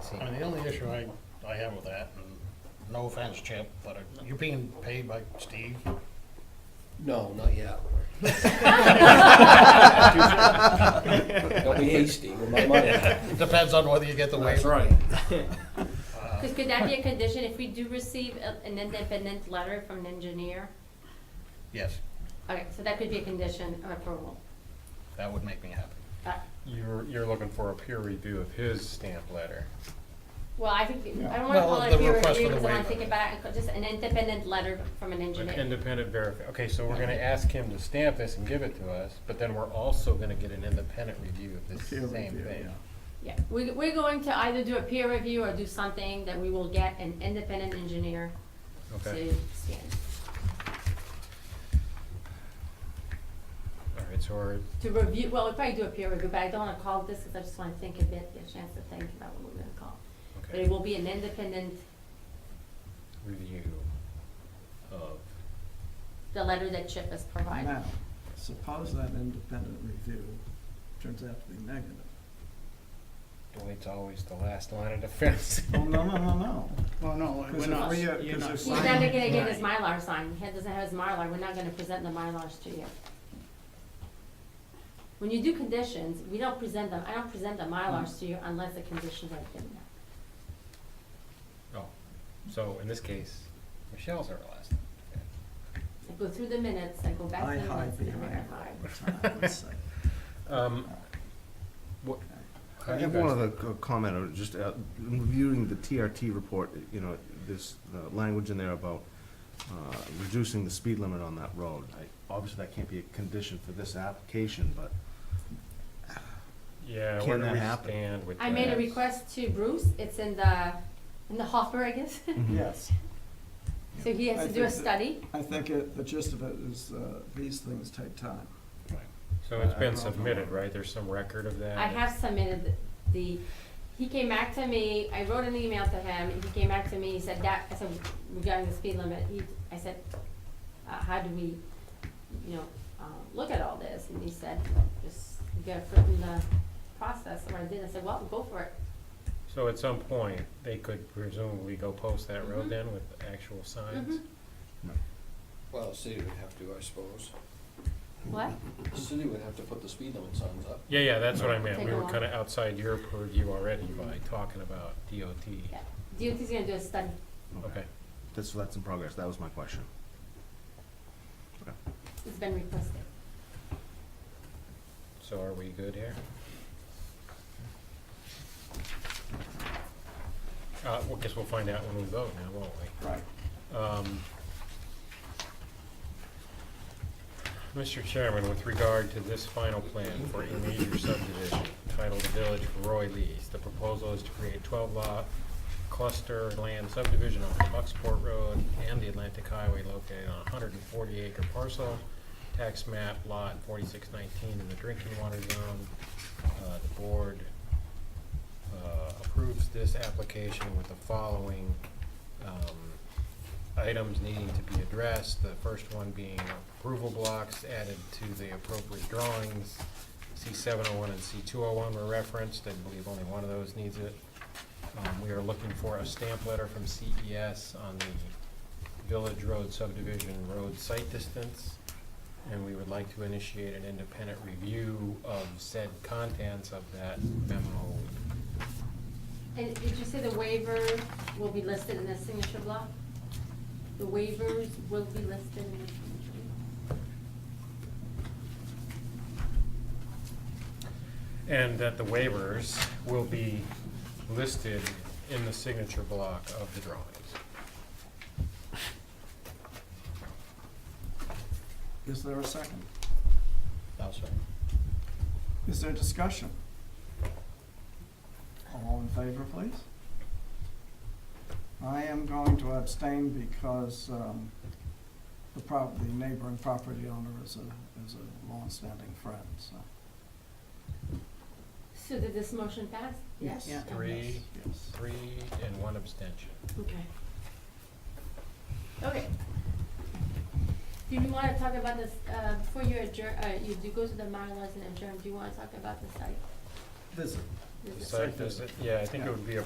seen. I mean, the only issue I, I have with that, and no offense, Chip, but are you being paid by Steve? No, not yet. Don't be hasty with my money. Depends on whether you get the That's waiver. right. Because could that be a condition if we do receive a- an independent letter from an engineer? Yes, Okay, so that could be a condition of approval. that would make me happy. Uh, You're, you're looking for a peer review of his stamp letter. Well, I think, I don't want to Well, call it the a peer request for the review because I'm not waiver. thinking about it, just an independent letter from an Like engineer. Independent verify, okay, so we're gonna ask him to stamp this and give it to us, but then we're also gonna get an independent review of this Peer same review, thing. yeah. Yeah, we, we're going to either do a peer review or do something that we will get an independent engineer Okay, to scan, all right, so we're, to review, well, we'll probably do a peer review, but I don't want to call this because I just want to think a bit, get a chance to think about what we're going to call. But it okay, will be an independent, review of, the letter that Chip has provided. Now, suppose that independent review turns out to be negative. well, it's always the last line of defense. Oh, no, no, no, no. Well, no, we're Because not, if we, uh, you're because not if He's we- signing. never gonna get it. his Mylar signed, he doesn't have his Mylar, we're not gonna present the Mylars to you. When you do conditions, we don't present them, I don't present the Mylars to you unless the conditions are been met. Oh, so in this case, Michelle's our last. line of defense. I go through the minutes, I go back I to the minutes hide and behind verify. time, let's say. Um, what? how I do you have one guys- other co- comment, or just uh, in reviewing the TRT report, you know, there's uh, language in there about uh, reducing the speed limit on that road. I- Obviously, that can't be a condition for this application, but Yeah, where Can do that we happen? stand with that? I made a request to Bruce, it's in the, in the hopper, I guess, Yes, so he has I to do a think that- study. I think it, the gist of it is, uh, these things take time. So it's I- I been don't know. submitted, right? There's some record of that? I have submitted the, he came back to me, I wrote an email to him, and he came back to me, he said that, I said, regarding the speed limit, he, I said, uh, how do we, you know, uh, look at all this, and he said, just get it in the process, and I did, I said, well, go for it. So at some point, they could presumably go post that Mm-hmm. road then with actual signs? Mhm. Well, the city would have to, I suppose. What? The city would have to put the speed limit signs up. Yeah, yeah, that's what I meant. Take We a were walk. Mm-hmm. kind of outside your purview already by talking about DOT. Yeah. DOT's gonna do a study. Okay, that's, that's in progress. That was my question. It's been requested. so are we good here? Uh, well, guess we'll find out when we vote now, won't we? Right. Um, Mr. Chairman, with regard to this final plan for a major subdivision titled Village Roy Lee's, the proposal is to create twelve lot cluster land subdivision on Bucksport Road and the Atlantic Highway located on a hundred and forty acre parcel, tax map lot forty-six nineteen in the drinking water zone. Uh, the board, uh, approves this application with the following, um, items needing to be addressed, the first one being approval blocks added to the appropriate drawings. C seven oh one and C two oh one were referenced, I believe only one of those needs it. Um, we are looking for a stamp letter from CES on the Village Road subdivision road site distance. And we would like to initiate an independent review of said contents of that memo. And did you say the waiver will be listed in the signature block? The waivers will be listed in the signature block? And that the waivers will be listed in the signature block of the drawings. Is there a second? No, sir. Is there discussion? All in favor, please? I am going to abstain because um, the prop, the neighboring property owner is a, is a longstanding friend, so. So did this motion pass? Yeah. Three. Yes. Three and one abstention. Okay. Okay. Do you wanna talk about this, uh, before you adjourn, uh, you do go to the Mylars and adjourn, do you wanna talk about the site? Visit. The visit? site visit, yeah, I think it would be